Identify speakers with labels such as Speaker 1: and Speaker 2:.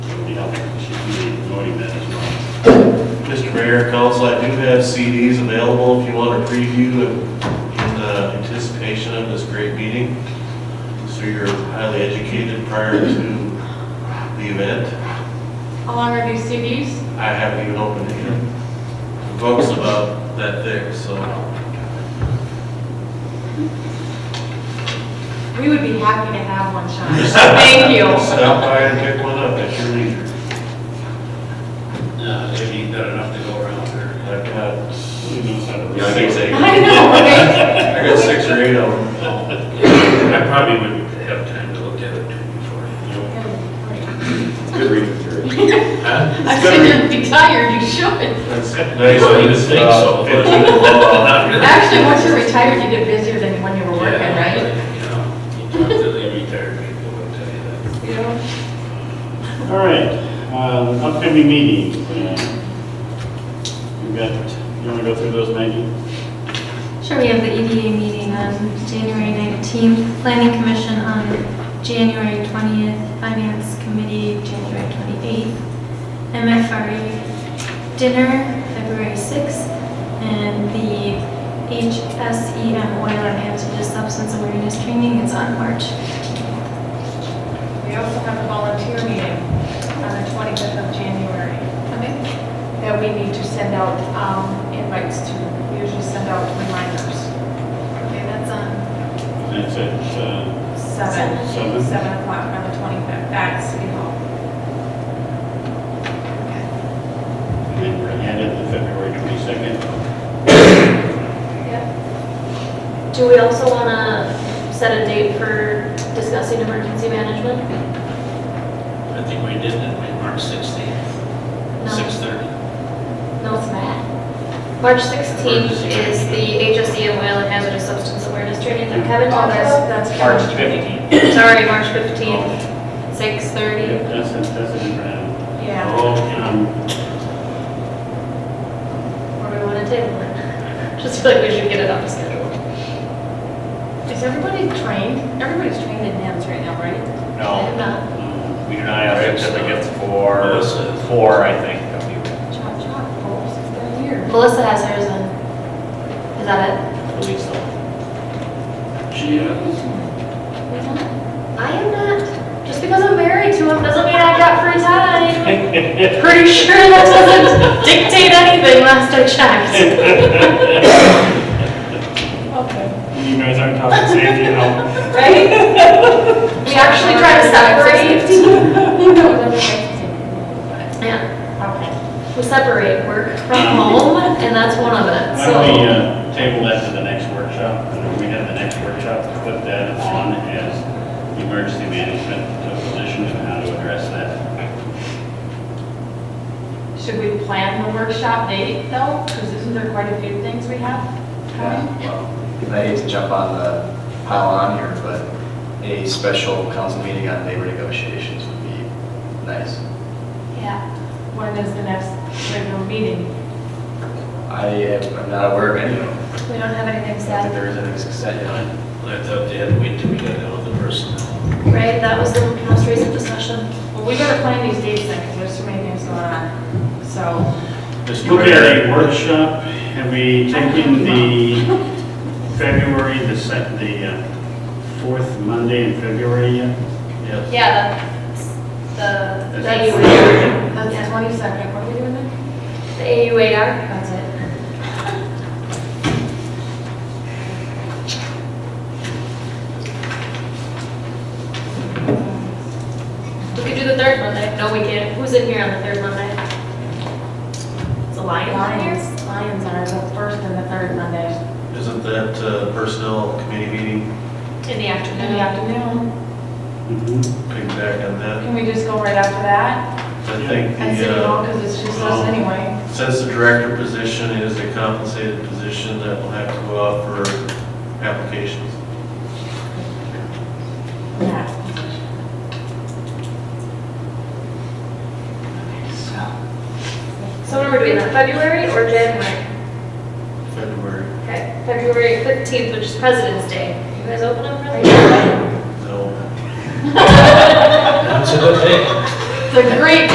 Speaker 1: you know, should be joining that as well. Mr. Mayor, Council, I do have CDs available if you want to preview in in, uh, anticipation of this great meeting. So you're highly educated prior to the event.
Speaker 2: How long are these CDs?
Speaker 1: I haven't even opened it yet. The Book's about that thick, so
Speaker 2: We would be happy to have one, Sean. Thank you.
Speaker 1: stop by and pick one up at your leisure.
Speaker 3: No, they've eaten that enough to go around there.
Speaker 1: I've got
Speaker 3: Yeah,
Speaker 1: six, eight.
Speaker 2: I know, right?
Speaker 1: I got six or eight of them.
Speaker 3: I probably wouldn't have time to look at it before.
Speaker 4: Good reading period.
Speaker 2: I said you're retired, you should.
Speaker 1: That's
Speaker 3: Nice,
Speaker 1: nice. Uh,
Speaker 3: I didn't think so. but- Not really.
Speaker 2: Actually, once you're retired, you get busier than when you were working,
Speaker 3: Yeah,
Speaker 2: right?
Speaker 3: You know, you talk to the retired people, I'll tell you that.
Speaker 2: Yeah.
Speaker 5: All right, uh, upcoming meetings. uh, We've got, you want to go through those, Maggie?
Speaker 6: Sure, we have the EDA meeting on January 19th, Planning Commission on January 20th, Finance Committee January 28th, MFRA Dinner February 6th, and the HSEM Oil and Hazardous Substance Awareness Training is on March.
Speaker 7: We also have a volunteer meeting on the 25th of January
Speaker 6: Okay.
Speaker 7: that we need to send out um, invites to. We usually send out reminders. Okay, that's on
Speaker 5: That's it. uh,
Speaker 7: 7,
Speaker 5: Seven.
Speaker 7: 7 o'clock on the 25th at City Hall.
Speaker 5: And then we're added the February 22nd.
Speaker 6: Do we also want to set a date for discussing emergency management?
Speaker 3: I think we did it, we March 16th,
Speaker 6: No.
Speaker 3: 6:30.
Speaker 6: No, it's not. March 16th
Speaker 3: Emergency
Speaker 6: is the HSE and Oil and Hazardous Substance Awareness Training that Kevin
Speaker 7: Oh,
Speaker 6: told
Speaker 7: that's, that's.
Speaker 6: us.
Speaker 3: March 15th.
Speaker 6: Sorry, March 15th,
Speaker 5: Oh,
Speaker 6: 6:30.
Speaker 5: yep, That's it, that's it. uh,
Speaker 7: Yeah.
Speaker 5: um,
Speaker 6: Or do we want to table it? Just feel like we should get it on the schedule.
Speaker 2: Is everybody trained? Everybody's trained in NAMs right now, right?
Speaker 6: If not,
Speaker 5: um,
Speaker 8: We do not have certificates for,
Speaker 3: Melissa.
Speaker 8: four, I think, of you,
Speaker 2: Chop, chop, folks, it's been years.
Speaker 6: Melissa has hers on. Is that it?
Speaker 8: I believe so.
Speaker 3: She, uh,
Speaker 6: I am not. Just because I'm married to him doesn't mean I've got free time. Pretty sure that doesn't dictate anything last I checked.
Speaker 5: You guys aren't talking safety, you know?
Speaker 6: Right? We actually try to separate. Yeah,
Speaker 2: Okay.
Speaker 6: we separate work from home, and that's one of it,
Speaker 5: Why don't we
Speaker 6: so.
Speaker 5: uh, table that to the next workshop? And if we have the next workshop, to put that on as the emergency management position and how to address that.
Speaker 2: Should we plan the workshop date though? Because isn't there quite a few things we have coming?
Speaker 4: Well, I hate to jump on the pile on here, but a special council meeting on labor negotiations would be nice.
Speaker 6: Yeah.
Speaker 2: When is the next regular meeting?
Speaker 4: I am I'm not aware of any of them.
Speaker 6: We don't have anything
Speaker 4: I don't think
Speaker 6: set,
Speaker 4: there is anything set
Speaker 3: I
Speaker 4: yet.
Speaker 3: I thought they had to wait till we got out of the personnel.
Speaker 6: right? That was the most recent discussion.
Speaker 2: Well, we gotta plan these dates then, because there's so many things going on. So,
Speaker 5: Look at a workshop, have we taken the February, the sec the uh, fourth Monday in February uh, yet?
Speaker 1: Yes.
Speaker 6: Yeah, the, the
Speaker 5: That's-
Speaker 6: AUAR.
Speaker 2: that's
Speaker 6: Yeah.
Speaker 2: the twenty-second, what are we doing then?
Speaker 6: The AUAR, that's it. We could do the third Monday. No, we can't. Who's in here on the third Monday? It's a lion on here?
Speaker 2: Lions, Lions are the first and the third Mondays.
Speaker 1: Isn't that uh, personnel committee meeting,
Speaker 6: In the
Speaker 2: In the
Speaker 6: afternoon.
Speaker 2: afternoon,
Speaker 5: Mhm.
Speaker 1: piggyback on that?
Speaker 2: can we just go right after that?
Speaker 1: I think
Speaker 2: And City
Speaker 1: the,
Speaker 2: Hall,
Speaker 1: uh,
Speaker 2: because it's just us anyway.
Speaker 1: since the director position is a compensated position, that will have to go out for applications.
Speaker 2: Yeah.
Speaker 6: So when are we doing that? February or January?
Speaker 1: February,
Speaker 6: Okay, February 15th, which is President's Day. You guys open up early?
Speaker 1: no.
Speaker 3: That's a good thing.
Speaker 2: The great